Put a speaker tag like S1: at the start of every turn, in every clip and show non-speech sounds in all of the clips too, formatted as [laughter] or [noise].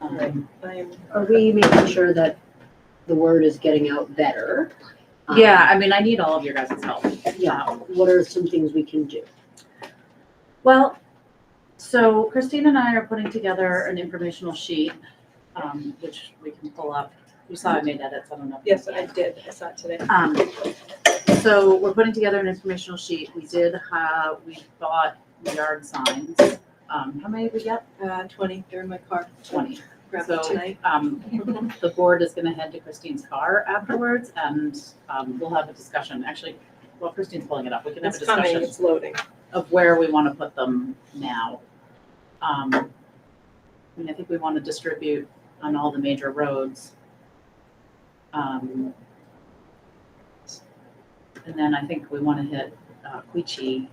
S1: All right, I'm,
S2: Are we making sure that the word is getting out better? Um,
S3: Yeah, I mean, I need all of your guys' help.
S2: Yeah, what are some things we can do?
S3: Well, so Christine and I are putting together an informational sheet, um, which we can pull up. You saw I made edits, I don't know. if you
S1: yes,
S3: can.
S1: I did, I saw it today.
S3: Um, so we're putting together an informational sheet. We did, uh, we bought yard signs. Um, how many did we get?
S1: Uh, twenty, they're in my car,
S3: Twenty.
S1: grabbed
S3: So-
S1: it tonight.
S3: [laughs] Um, the board is gonna head to Christine's car afterwards and, um, we'll have a discussion. Actually, well, Christine's pulling it up. We can have a
S1: It's
S3: discussion.
S1: coming, it's loading.
S3: of where we want to put them now. Um, I mean, I think we want to distribute on all the major roads. Um, and then I think we want to hit uh, Queechee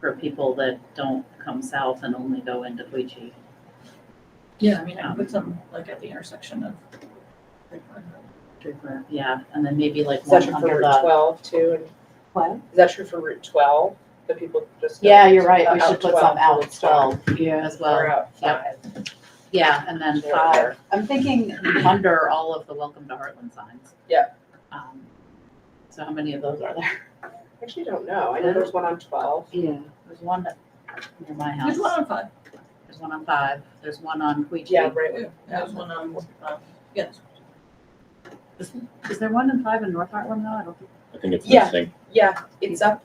S3: for people that don't come south and only go into Queechee.
S4: Yeah, I mean, I can put some like at the intersection of.
S3: Yeah, and then maybe like
S5: Is that true
S3: one
S5: for
S3: under
S5: Route
S3: the.
S5: twelve too? And
S3: uh, What?
S5: is that true for Route twelve? The people just.
S3: Yeah, you're right. We
S5: Out
S3: should put uh, some
S5: 12
S3: out
S5: to
S3: as
S5: start,
S3: well, as well.
S5: Or out
S3: Yep.
S5: five.
S3: Yeah, and then
S5: Sure.
S3: five, I'm thinking under all of the welcome to Heartland signs.
S5: Yeah.
S3: Um, So how many of those are there?
S5: Actually, I don't know. I know there's one on twelve.
S2: Yeah,
S3: There's one that- near my house,
S4: There's one on five.
S3: there's one on five, there's one on
S5: Yeah,
S3: Queechee.
S5: right.
S1: mm,
S4: Yeah, There's one on, um, yes.
S3: Is there one in five in North Heartland though? I don't think.
S6: I think it's
S5: Yeah.
S6: missing.
S5: Yeah, it's up
S1: uh,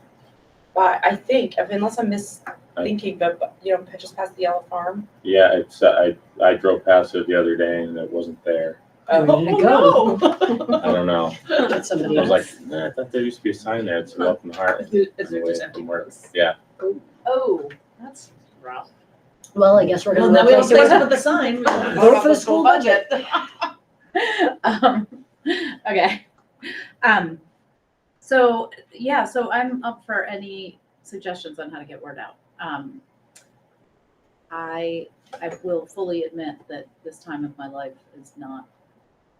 S5: by, I think, I mean, unless I'm misthinking, but, but, you know, just past the yellow farm.
S6: Yeah, it's, I, I drove past it the other day and it wasn't there.
S5: Um,
S2: Where did it
S4: Oh,
S6: I don't know.
S2: get
S6: I
S2: somebody else.
S6: was like, "Nah, I thought there used to be a sign there. It's welcome to
S4: no.
S6: Heartland.
S4: Is it- is it just
S6: Away
S4: empty?
S6: from work. Yeah,
S3: Oh, that's rough.
S2: Well, I guess we're
S4: Well,
S2: gonna.
S4: now we don't
S2: replace it
S4: say
S2: with-
S4: about the sign. [laughs] we don't-
S2: Vote for the school budget.
S3: Um, [laughs] okay. Um, so, yeah, so I'm up for any suggestions on how to get word out. Um, I, I will fully admit that this time of my life is not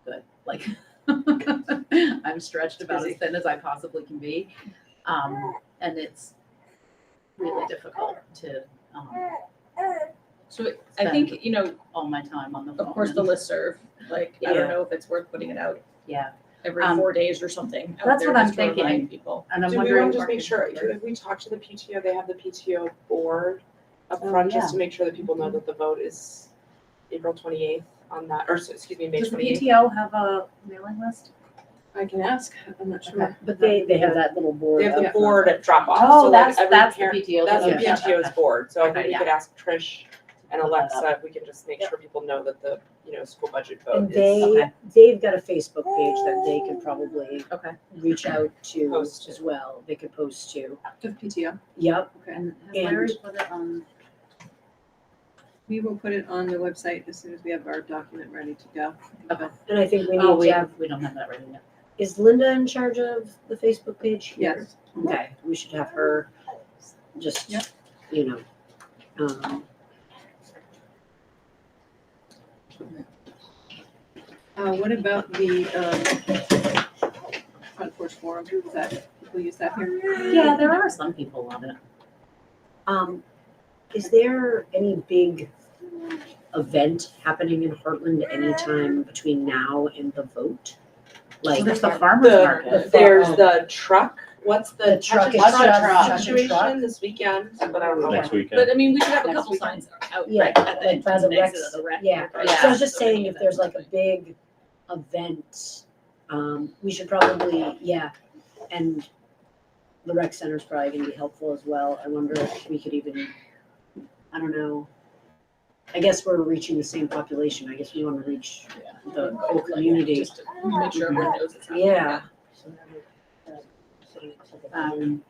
S3: good. Like, [laughs] I'm stretched about as thin as I possibly can be. Um, and it's really difficult to, um,
S4: So I think, you know,
S3: all my time on the phone.
S4: of course, the
S3: and-
S4: listserv, like, I
S3: Yeah.
S4: don't know if it's worth putting it out
S3: Yeah,
S4: every
S3: Um,
S4: four days or something. out
S3: that's
S4: there
S3: what I'm
S4: just to remind
S3: thinking.
S4: People.
S3: and I'm
S5: Do we
S3: wondering.
S5: want to just make sure, if we talk to the PTO, they have the PTO board up
S3: Oh,
S5: front, just to make sure that people know that the vote is April twenty-eighth on that, or, so- excuse me, May
S3: Does the
S5: twenty-eighth.
S3: PTO have a mailing list?
S5: I can ask, I'm not
S3: sure.
S2: But they, they have that little board
S5: They have
S2: up.
S5: the board at drop off, so
S3: Oh,
S5: like
S3: that's,
S5: every
S3: that's the
S5: parent-
S3: PTO.
S5: That's the
S2: Okay. Yeah.
S5: PTO's board, so I think
S3: Okay,
S5: we
S3: yeah.
S5: could ask Trish and
S3: Put that
S5: Alexa, if we can just make sure people know that the, you know, school budget
S6: Oh,
S5: vote
S2: And
S5: is.
S2: they,
S3: Okay.
S2: they've got a Facebook page that they could probably
S3: Oh. Okay.
S2: reach out to
S5: Post to.
S2: as well, they could post to.
S4: The PTO.
S2: Yep,
S3: And has
S2: And-
S3: Larry put it on?
S1: We will put it on the website as soon as we have our document ready to go.
S2: and I think we
S3: Oh,
S2: need
S3: we
S2: to have,
S3: have, we don't have that ready yet.
S2: is Linda in charge of the Facebook page here?
S1: Yes.
S2: Okay, we should have her just,
S4: Yep.
S2: you know, um,
S1: Uh, what about the, um, front porch forum, is that, people use that here?
S3: Yeah, there are some people on it.
S2: um, is there any big event happening in Heartland anytime between now and the vote?
S3: Like,
S2: Like,
S3: there's
S2: the
S3: the farmer's
S5: The,
S3: market.
S5: there's
S4: Oh.
S5: the truck, what's the
S2: truck
S5: truck
S2: is
S3: What's the truck?
S2: truck, truck.
S5: situation this weekend, but I don't know.
S3: Yeah.
S6: next weekend.
S4: But I mean, we should have a
S3: Next
S4: couple
S3: weekend.
S4: signs out,
S2: Yeah,
S4: right, at
S2: like
S4: the,
S2: by the
S4: the exit
S2: recs,
S4: of the rec.
S2: yeah.
S4: or
S3: Yeah.
S2: So I was just
S4: something
S2: saying, if there's like a big event, um, we should probably, yeah, and the rec center's probably gonna be helpful as well, I wonder if we could even, I don't know. I guess we're reaching the same population, I guess we wanna reach the whole
S4: Like,
S2: community,
S4: Just to make sure everyone knows it's happening.
S2: yeah.
S3: Um,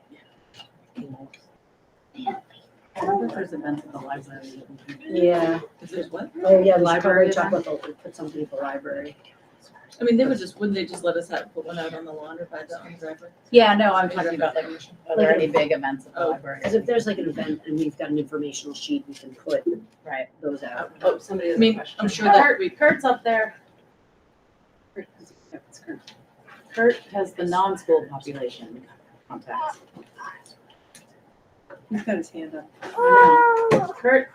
S3: I wonder if there's events at the library. that we can-
S2: Yeah,
S4: If there's what?
S2: oh yeah, we should probably
S3: Library event?
S2: talk about, the- put something at the library,
S4: I mean, they would just, wouldn't they just let us have, put one out on the lawn or by the, on the driveway?
S3: Yeah, no, I'm talking about like, are there
S2: Like a-
S3: any big events at the
S4: Oh.
S3: library?
S2: cause if there's like an event and we've got an informational sheet, we can put
S3: Right.
S2: those out.
S5: Oh, somebody
S4: I
S5: has a
S4: mean,
S5: question.
S4: I'm sure that we,
S3: Kurt's up there. Kurt has the non-school population contacts.
S1: He's got his hand up.
S3: Kurt